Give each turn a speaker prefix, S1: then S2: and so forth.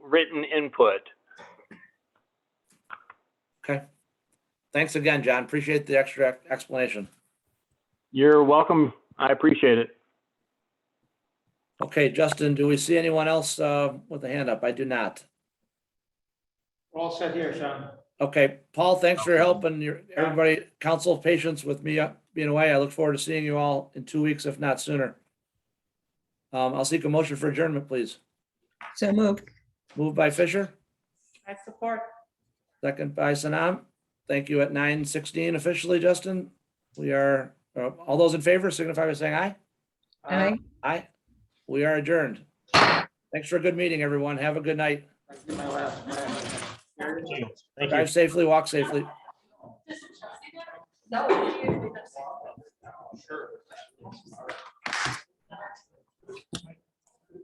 S1: written input.
S2: Thanks again, John. Appreciate the extra explanation.
S1: You're welcome. I appreciate it.
S2: Okay, Justin, do we see anyone else uh, with a hand up? I do not.
S3: We're all set here, Sean.
S2: Okay, Paul, thanks for your help and your, everybody, council patience with me uh, being away. I look forward to seeing you all in two weeks, if not sooner. Um, I'll seek a motion for adjournment, please.
S4: So moved.
S2: Moved by Fisher,
S4: I support.
S2: second by Sanam. Thank you at nine sixteen officially, Justin. We are, uh, all those in favor signify by saying aye.
S4: Aye.
S2: Aye. We are adjourned. Thanks for a good meeting, everyone. Have a good night.
S3: I did my last- my last-
S2: Drive safely, walk safely.
S3: Sure.